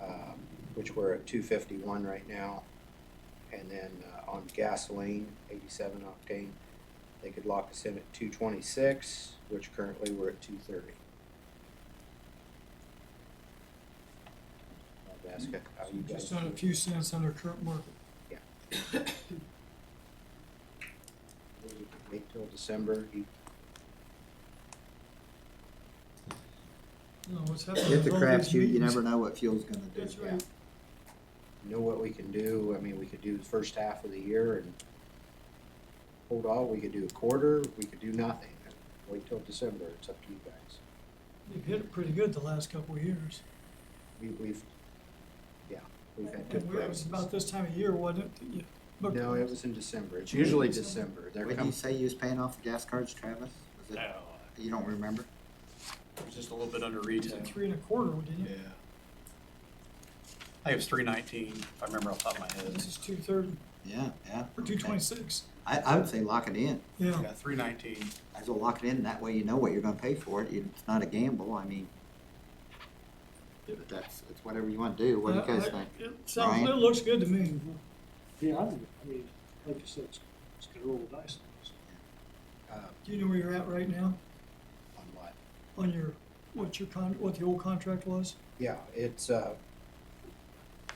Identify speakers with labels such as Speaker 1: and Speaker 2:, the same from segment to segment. Speaker 1: um, which we're at two fifty-one right now. And then, uh, on gasoline, eighty-seven octane, they could lock us in at two twenty-six, which currently we're at two thirty. I'd ask how you guys.
Speaker 2: Just on a
Speaker 1: feel.
Speaker 2: few cents under current market.
Speaker 1: Wait till December, you
Speaker 2: No, what's happening?
Speaker 3: If the
Speaker 2: with all
Speaker 3: crap
Speaker 2: these
Speaker 3: shoot, you
Speaker 2: meetings-
Speaker 3: never know what fuel's gonna do.
Speaker 2: That's right.
Speaker 1: know what we can do. I mean, we could do the first half of the year and hold off. We could do a quarter. We could do nothing. Wait till December. It's up to you guys.
Speaker 2: They've hit it pretty good the last couple of years.
Speaker 1: We, we've, yeah, we've had good
Speaker 2: And we- It was
Speaker 1: prices.
Speaker 2: about this time of year, wasn't it? that you booked
Speaker 1: No, it
Speaker 2: those?
Speaker 1: was in December. It's usually December. They're
Speaker 3: What do you
Speaker 1: coming.
Speaker 3: say you was paying off the gas cards, Travis? Was it,
Speaker 4: No,
Speaker 3: you don't remember?
Speaker 4: it was just a little bit under
Speaker 2: It was
Speaker 4: retail.
Speaker 2: at three and a quarter, didn't
Speaker 4: Yeah.
Speaker 2: it?
Speaker 4: I think it was three nineteen, if I remember off the top of my head.
Speaker 2: This is two thirty,
Speaker 3: Yeah, yeah.
Speaker 2: or two twenty-six,
Speaker 3: I, I would say lock it in.
Speaker 2: yeah.
Speaker 4: Yeah, three nineteen.
Speaker 3: As well lock it in, that way you know what you're gonna pay for it. It's not a gamble, I mean. But that's, it's whatever you wanna do, what do you
Speaker 2: Uh,
Speaker 3: guys
Speaker 2: I-
Speaker 3: think?
Speaker 2: It sounds, it
Speaker 3: Ryan?
Speaker 2: looks good to me.
Speaker 5: Yeah, I don't- I mean, like you said, it's, it's gonna roll the dice on this.
Speaker 1: Uh,
Speaker 2: Do you know where you're at right now
Speaker 1: on what?
Speaker 2: on your, what your con, what the old contract was?
Speaker 1: Yeah, it's, uh,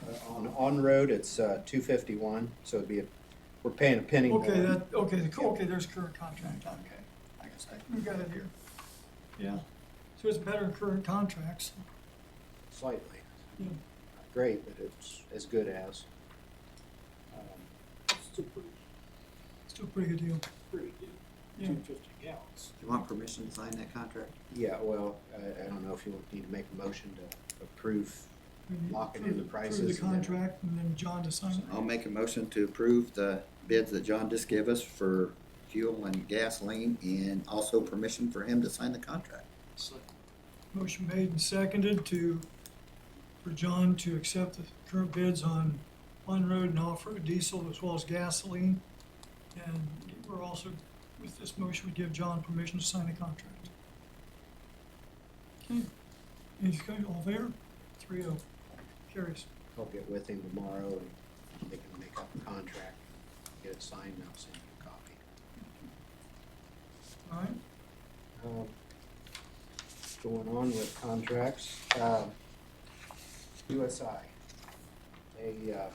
Speaker 1: uh, on, on road, it's, uh, two fifty-one. So it'd be, a we're paying a penny more.
Speaker 3: uh,
Speaker 2: Okay, that, okay, the, okay, there's current contract.
Speaker 4: Okay, I guess I.
Speaker 2: We got it here. Yeah, so it's better than current contracts.
Speaker 1: Slightly.
Speaker 2: Yeah.
Speaker 1: Not Great, but it's as good as. Um,
Speaker 5: It's still pretty,
Speaker 2: Still a pretty good deal.
Speaker 5: pretty good,
Speaker 2: Yeah.
Speaker 5: two fifty gallons.
Speaker 3: Do you want permission to sign that contract?
Speaker 1: Yeah, well, I, I don't know if you need to make a motion to approve.
Speaker 2: We need to
Speaker 1: Lock it in
Speaker 2: approve-
Speaker 1: the
Speaker 2: approve
Speaker 1: prices
Speaker 2: the
Speaker 1: and then-
Speaker 2: contract and then John to sign it.
Speaker 3: I'll make a motion to approve the bids that John just gave us for fuel and gasoline and also permission for him to sign the contract.
Speaker 5: So,
Speaker 2: Motion made and seconded to, for John to accept the current bids on on-road and off-road diesel as well as gasoline. And we're also, with this motion, we give John permission to sign the contract. Okay, any, discussion? all there? Three oh, carries.
Speaker 1: I'll get with him tomorrow and they can make up a contract, get it signed, and I'll send you a copy.
Speaker 2: All right,
Speaker 1: Um, Going on with contracts, um, USI, they, uh,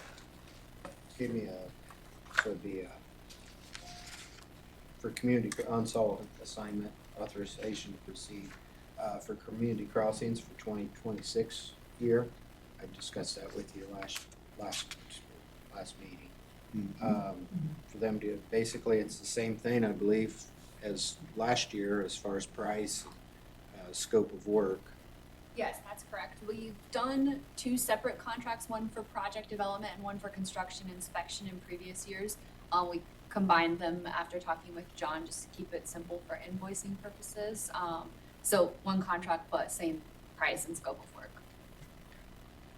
Speaker 1: gave me a, so it'd be a, for community unsolved assignment authorization to proceed, uh, for community crossings for twenty twenty-six year. I discussed that with you last, last, last meeting.
Speaker 3: Hmm. Uh,
Speaker 1: Um, for them to, basically, it's the same thing, I believe, as last year as far as price, uh, scope of work.
Speaker 6: Yes, that's correct. We've done two separate contracts, one for project development and one for construction inspection in previous years. Uh, we combined them after talking with John, just to keep it simple for invoicing purposes. Um, so one contract, but same price and scope of work.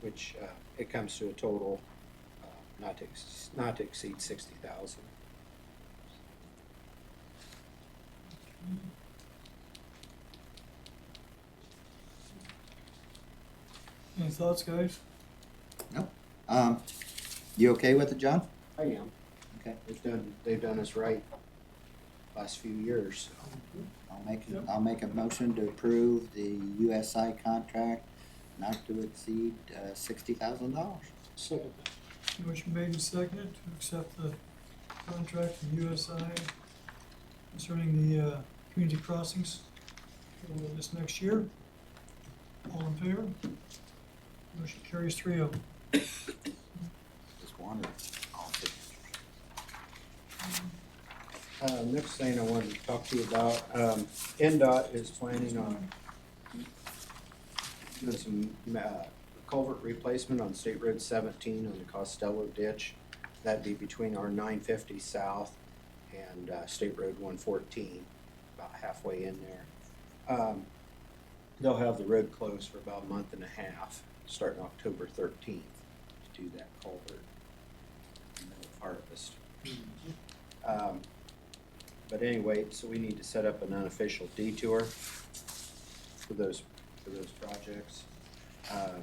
Speaker 1: which uh, it comes to a total uh, not to, ex- not to exceed sixty thousand.
Speaker 2: any thoughts, guys?
Speaker 3: Um, you okay with it, John?
Speaker 1: I am.
Speaker 3: Okay.
Speaker 1: They've done, they've done us right last few years, so.
Speaker 3: I'll make,
Speaker 2: Yep.
Speaker 3: I'll make a motion to approve the USI contract not to exceed uh, sixty thousand dollars.
Speaker 5: Second,
Speaker 2: Motion made and seconded to accept the contract from USI concerning the, uh, community crossings for this next year. All in favor? Motion carries three oh.
Speaker 3: Just wanted all signatures.
Speaker 1: Uh, Next thing I wanted to talk to you about, um, NDOT is planning on doing some uh, culvert replacement on State Road seventeen on the Costello ditch. That'd be between our nine fifty south and uh, State Road one fourteen, about halfway in there. Um, They'll have the road closed for about a month and a half, starting October thirteenth, to do that culvert in the middle of harvest. Um, but anyway, so we need to set up an unofficial detour for those, for those projects. Um,